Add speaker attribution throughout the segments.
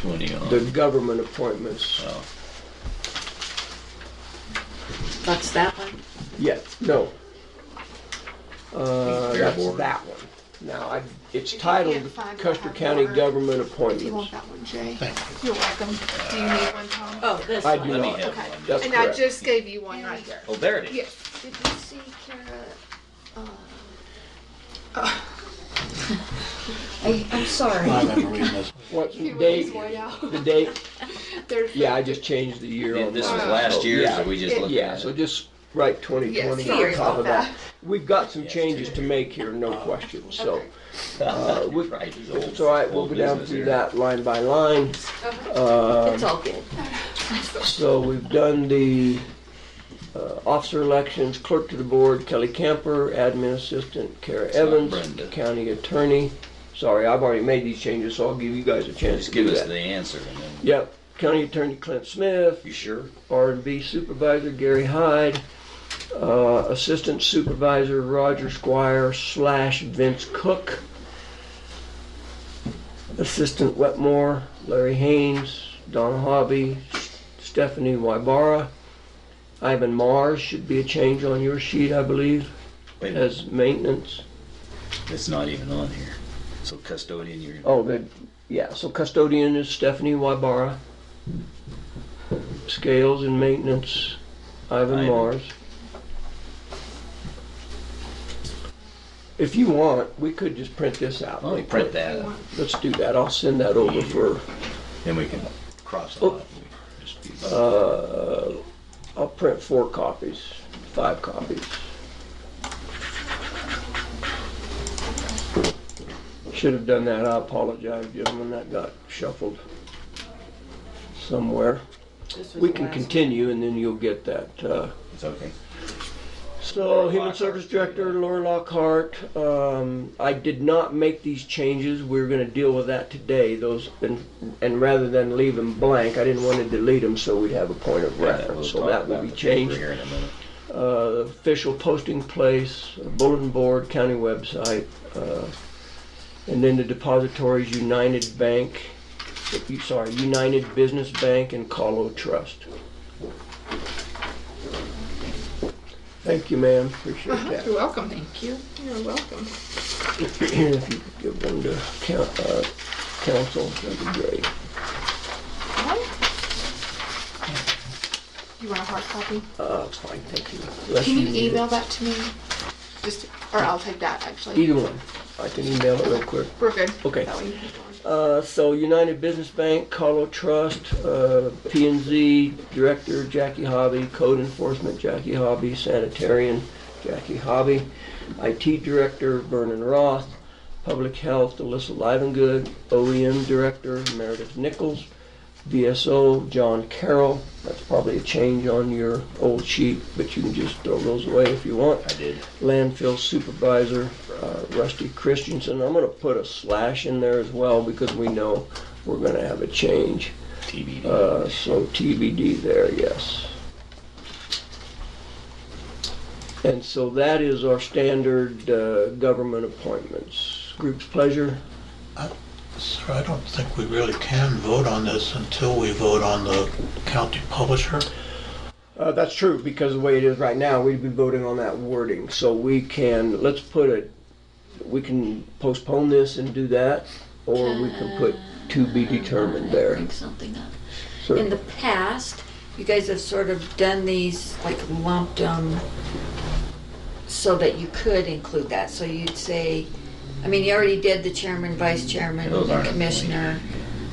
Speaker 1: 20
Speaker 2: the
Speaker 1: on.
Speaker 2: government appointments.
Speaker 1: Oh,
Speaker 3: That's that one?
Speaker 2: Yeah, no. Uh,
Speaker 1: Fair
Speaker 2: that's
Speaker 1: board.
Speaker 2: that one. Now, I, it's
Speaker 4: If you
Speaker 2: titled
Speaker 4: can't find
Speaker 2: Custer
Speaker 4: that
Speaker 2: County
Speaker 4: board,
Speaker 2: Government
Speaker 4: Do you
Speaker 2: Appointments.
Speaker 4: want that one, Jay? You're welcome. Do you need one, Tom?
Speaker 3: Oh, this
Speaker 2: I
Speaker 3: one.
Speaker 2: do
Speaker 1: Let me
Speaker 2: not.
Speaker 1: have
Speaker 4: Okay.
Speaker 1: one.
Speaker 2: That's
Speaker 4: And I
Speaker 2: correct.
Speaker 4: just gave you one right there.
Speaker 1: Oh, there it is.
Speaker 4: Yes.
Speaker 5: Did you see Kara? uh, I, I'm sorry.
Speaker 6: I remember reading this.
Speaker 2: What's the
Speaker 4: He was
Speaker 2: date?
Speaker 4: his way out.
Speaker 2: The date?
Speaker 4: There's,
Speaker 2: Yeah, I just changed the year on
Speaker 1: This was
Speaker 2: mine.
Speaker 1: last year,
Speaker 2: Yeah.
Speaker 1: so we just
Speaker 4: Yeah,
Speaker 1: looked
Speaker 2: Yeah,
Speaker 1: at
Speaker 2: so
Speaker 1: it.
Speaker 2: just write twenty
Speaker 4: yes,
Speaker 2: twenty
Speaker 4: sorry
Speaker 2: on top
Speaker 4: about
Speaker 2: of that.
Speaker 4: that.
Speaker 2: We've got some
Speaker 1: Yes,
Speaker 2: changes to make here, no question, so. uh, we-
Speaker 1: Right, it's
Speaker 2: If
Speaker 1: old-
Speaker 2: it's all right, we'll
Speaker 1: old
Speaker 2: go down
Speaker 1: business
Speaker 2: through
Speaker 1: here.
Speaker 2: that line by line.
Speaker 3: Uh-huh.
Speaker 2: Um,
Speaker 3: It's all good.
Speaker 2: So we've done the uh, officer elections, clerk to the board, Kelly Camper, admin assistant, Kara
Speaker 1: not
Speaker 2: Evans,
Speaker 1: Brenda.
Speaker 2: county attorney. Sorry, I've already made these changes, so I'll give you guys a chance
Speaker 1: Just
Speaker 2: to do
Speaker 1: give us
Speaker 2: that.
Speaker 1: the answer and then,
Speaker 2: Yep, county attorney Clint Smith,
Speaker 1: you sure?
Speaker 2: R and B supervisor Gary Hyde, uh, assistant supervisor Roger Squire slash Vince Cook, assistant Wetmore Larry Haynes, Donna Hobby, Stephanie Wybara, Ivan Mars should be a change on your sheet, I believe,
Speaker 1: Wait, a minute,
Speaker 2: as maintenance.
Speaker 1: it's not even on here. So custodian, you're,
Speaker 2: Oh, good. Yeah, so custodian is Stephanie Wybara. Scales and maintenance, Ivan
Speaker 1: Ivan.
Speaker 2: Mars. If you want, we could just print this out.
Speaker 1: oh, we print that, out,
Speaker 2: Let's do that. I'll send that over for,
Speaker 1: then we can cross it
Speaker 2: Oh.
Speaker 1: off. We just do that.
Speaker 2: uh, I'll print four copies, five copies. Should have done that. I apologize, gentlemen. That got shuffled somewhere.
Speaker 3: This was
Speaker 2: We
Speaker 3: the
Speaker 2: can
Speaker 3: last
Speaker 2: continue and then you'll get that. uh,
Speaker 1: It's okay.
Speaker 2: So, Human Service Director Laura Lockhart, um, I did not make these changes. We're gonna deal with that today. Those, and, and rather than leave them blank, I didn't wanna delete them so we'd have a point of
Speaker 1: We'll
Speaker 2: reference. So
Speaker 1: talk
Speaker 2: that will
Speaker 1: about
Speaker 2: be
Speaker 1: the paper
Speaker 2: changed.
Speaker 1: here in a minute.
Speaker 2: Uh, official posting place, bulletin board, county website, uh, and then the depositories, United Bank, you- sorry, United Business Bank and Colo Trust. Thank you, ma'am, appreciate that.
Speaker 4: You're welcome. Thank you. You're welcome.
Speaker 2: If you could give one to coun- uh, council, that'd be great.
Speaker 4: You want a hard copy?
Speaker 2: Uh, it's fine, thank you. Unless
Speaker 4: Can
Speaker 2: need
Speaker 4: you
Speaker 2: it.
Speaker 4: email that to me? Just, or I'll take that actually.
Speaker 2: Either one, I can email it real quick.
Speaker 4: We're good.
Speaker 2: Okay.
Speaker 4: That way you can have one.
Speaker 2: Uh, so United Business Bank, Carlo Trust, uh, P&Z Director Jackie Hobby, Code Enforcement Jackie Hobby, Sanitarian Jackie Hobby, IT Director Vernon Roth, Public Health Alyssa Livengood, OEM Director Meredith Nichols, VSO John Carroll. That's probably a change on your old sheet, but you can just throw those away if you want
Speaker 1: I did.
Speaker 2: landfill supervisor, uh, Rusty Christensen. I'm gonna put a slash in there as well because we know we're gonna have a change.
Speaker 1: TBD.
Speaker 2: Uh, so TBD there, yes. And so that is our standard, uh, government appointments. Group's pleasure?
Speaker 6: Sir, I don't think we really can vote on this until we vote on the county publisher.
Speaker 2: Uh, that's true, because the way it is right now, we'd be voting on that wording, so we can, let's put it, we can postpone this and do that, or we can put to be determined there.
Speaker 5: Bring something up.
Speaker 2: So-
Speaker 5: In the past, you guys have sort of done these, like lumped them so that you could include that. So you'd say, I mean, you already did the chairman, vice chairman,
Speaker 1: Those
Speaker 5: the
Speaker 1: aren't
Speaker 5: commissioner.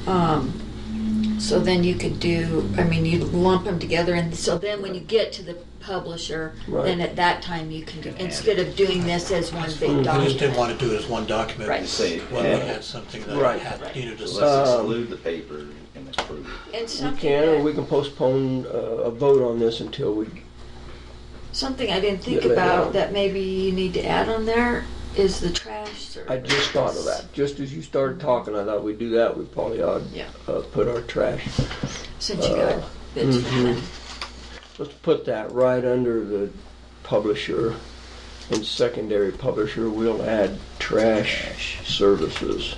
Speaker 5: Um, so then you could do, I mean, you lump them together and so then when you get to the publisher,
Speaker 2: Right.
Speaker 5: then at that time you can,
Speaker 1: add
Speaker 5: instead of doing this as one
Speaker 6: We
Speaker 5: big
Speaker 6: just didn't
Speaker 5: document.
Speaker 6: want to do it as one document.
Speaker 5: Right.
Speaker 1: Say,
Speaker 6: When we
Speaker 1: yeah.
Speaker 6: had something
Speaker 2: Right.
Speaker 6: that had needed a
Speaker 1: Let's
Speaker 2: Um,
Speaker 1: exclude the paper and approve it.
Speaker 5: And
Speaker 2: We
Speaker 5: something
Speaker 2: can, or
Speaker 5: that-
Speaker 2: we can postpone uh, a vote on this until we,
Speaker 5: Something I didn't think
Speaker 2: Yeah, later on.
Speaker 5: about that maybe you need to add on there is the trash service.
Speaker 2: I just thought of that. Just as you started talking, I thought we'd do that, we probably ought
Speaker 5: Yeah.
Speaker 2: uh, put our trash.
Speaker 5: Since you got bids from
Speaker 2: mhm.
Speaker 5: them.
Speaker 2: Let's put that right under the publisher. In secondary publisher, we'll add trash services.